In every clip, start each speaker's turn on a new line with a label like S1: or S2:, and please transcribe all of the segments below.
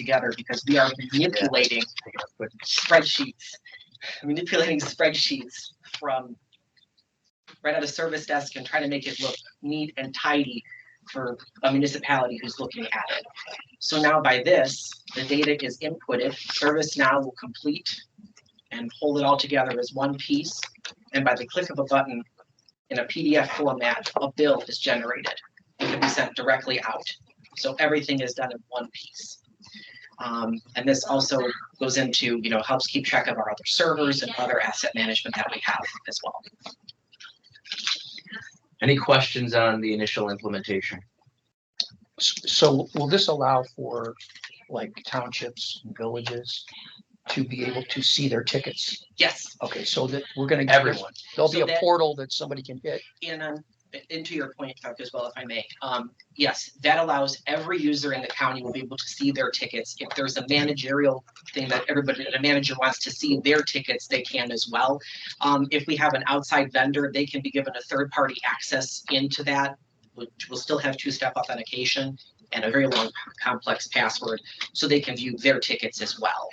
S1: together because we are manipulating spreadsheets, manipulating spreadsheets from right at a service desk and trying to make it look neat and tidy for a municipality who's looking at it. So now by this, the data is inputted, ServiceNow will complete and hold it all together as one piece. And by the click of a button in a PDF format, a bill is generated. It can be sent directly out. So everything is done in one piece. Um, and this also goes into, you know, helps keep track of our other servers and other asset management that we have as well.
S2: Any questions on the initial implementation?
S3: S- So will this allow for like townships, and villages to be able to see their tickets?
S1: Yes,
S3: Okay, so that we're gonna.
S2: Everyone.
S3: There'll be
S1: So
S3: a
S1: that-
S3: portal that somebody can hit.
S1: and um, and to your point, Chuck, as well, if I may, um, yes, that allows every user in the county will be able to see their tickets. If there's a managerial thing that everybody, a manager wants to see their tickets, they can as well. Um, if we have an outside vendor, they can be given a third-party access into that, which will still have two-step authentication and a very long, complex password, so they can view their tickets as well.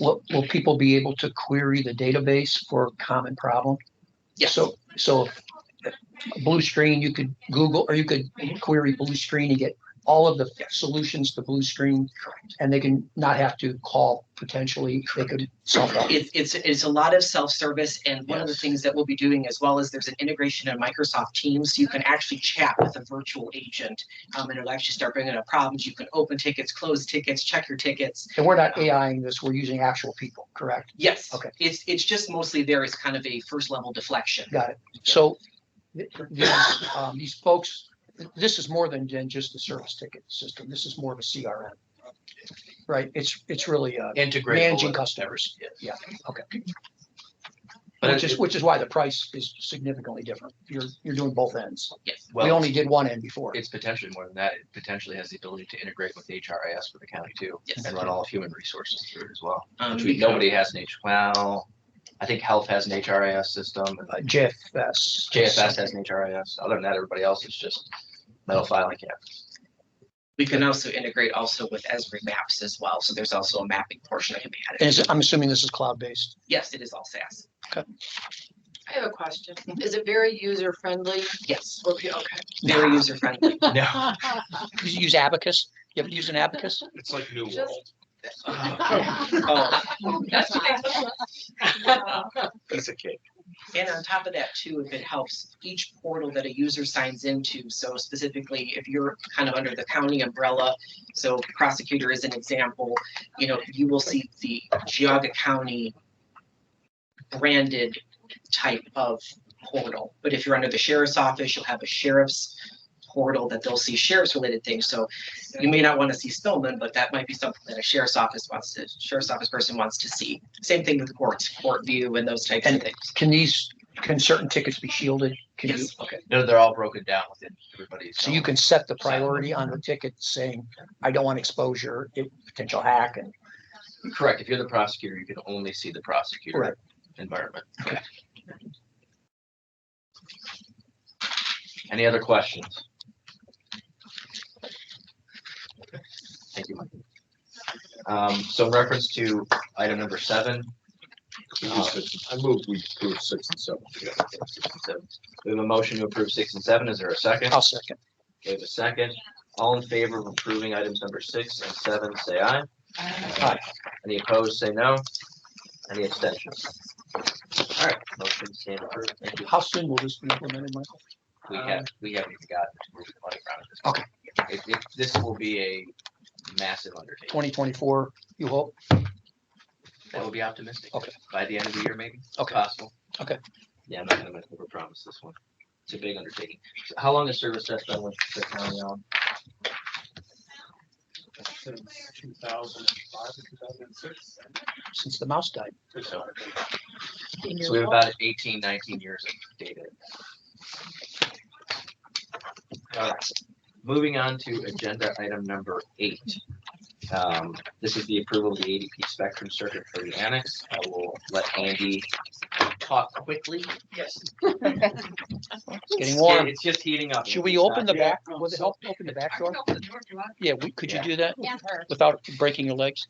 S3: Will, will people be able to query the database for a common problem?
S1: Yes.
S3: So, so if Blue Screen, you could Google, or you could query Blue Screen and get all of the solutions to Blue Screen.
S1: Correct.
S3: And they can not have to call potentially, they could solve that.
S1: It's, it's, it's a lot of self-service and one of the
S2: Yes.
S1: things that we'll be doing as well is there's an integration in Microsoft Teams. so You can actually chat with a virtual agent. Um, and it'll actually start bringing up problems. You can open tickets, close tickets, check your tickets.
S3: And we're not AIing this, we're using actual people, correct?
S1: Yes.
S3: Okay.
S1: It's, it's just mostly there as kind of a first level deflection.
S3: Got it. So th- these, um, these folks, th- this is more than, than just the service ticket system. This is more of a CRM. Right? It's, it's really, uh,
S2: Integrate.
S3: managing
S2: all-
S3: customers,
S2: Yes.
S3: Yeah, okay.
S2: But
S3: which
S2: it-
S3: is, which is why the price is significantly different. You're, you're doing both ends.
S1: Yes.
S3: We
S2: well,
S3: only did one end before.
S2: it's potentially more than that. It potentially has the ability to integrate with HRIS for the county too.
S1: Yes.
S2: And run all of human resources through it as well.
S1: Um,
S2: Which we- nobody has an H, well, I think health has an HRIS system, and
S3: Uh,
S2: like
S3: JFS.
S2: JFS has an HRIS. Other than that, everybody else is just metal filing cabinets.
S1: We can also integrate also with Esri maps as well. So there's also a mapping portion that can be
S3: And
S1: added.
S3: is it- I'm assuming this is cloud-based.
S1: Yes, it is all SaaS.
S4: I have a question. Is it very user friendly?
S1: Yes.
S4: Okay.
S1: Very user friendly.
S2: No.
S3: You Use Abacus? You have to use an Abacus?
S5: It's like New
S4: Just-
S5: World.
S1: Oh,
S5: Piece of cake.
S1: And on top of that too, if it helps, each portal that a user signs into, so specifically if you're kind of under the county umbrella, so prosecutor is an example, you know, you will see the Geauga County branded type of portal. But if you're under the sheriff's office, you'll have a sheriff's portal that they'll see sheriff's related things. So you may not want to see Spillman, but that might be something that a sheriff's office wants to, sheriff's office person wants to see. Same thing with courts, court view and those types of
S3: And-
S1: things.
S3: Can these, can certain tickets be shielded? Can you,
S1: Yes.
S3: okay.
S2: No, they're all broken down within everybody's.
S3: So you
S2: own.
S3: can set the priority on the ticket saying, I don't want exposure, it potential hack and
S2: Correct. If you're the prosecutor, you can only see the
S3: Right.
S2: prosecutor environment.
S3: Okay.
S2: Any other questions? Thank you, Mike. Um, so in reference to item number seven,
S5: Uh, I move we approve six and seven together.
S2: we have a motion to approve six and seven. Is there a second?
S3: I'll second.
S2: We have a second. All in favor of approving items number six and seven, say aye.
S3: Aye.
S2: Any opposed, say no. Any abstentions? All right, motion stand approved. Thank you.
S3: How soon will this be implemented, Michael?
S2: We
S5: Um,
S2: have, we haven't even gotten to where the money round is.
S3: Okay.
S2: It, it, this will be a massive undertaking.
S3: Twenty twenty-four, you hope?
S2: That would be optimistic.
S3: Okay.
S2: By the end of the year, maybe. if
S3: Okay.
S2: Possible.
S3: Okay.
S2: Yeah, I'm not gonna overpromise this one. It's a big undertaking. So How long has service desk been with the county now?
S5: Since two thousand and five, two thousand and six.
S3: Since the mouse died.
S2: So we have about 18, 19 years of data. All right. Uh, Moving on to agenda item number eight. Um, This is the approval of the ADP Spectrum Circuit for the annex. I will let Andy talk quickly.
S4: Yes.
S3: It's getting
S2: It's get-
S3: warm.
S2: It's just heating up.
S3: Should we open the
S2: Yeah.
S3: back, will it help open the back door? Yeah, we, could you
S2: Yeah.
S3: do that
S6: Yeah.
S3: without breaking your legs?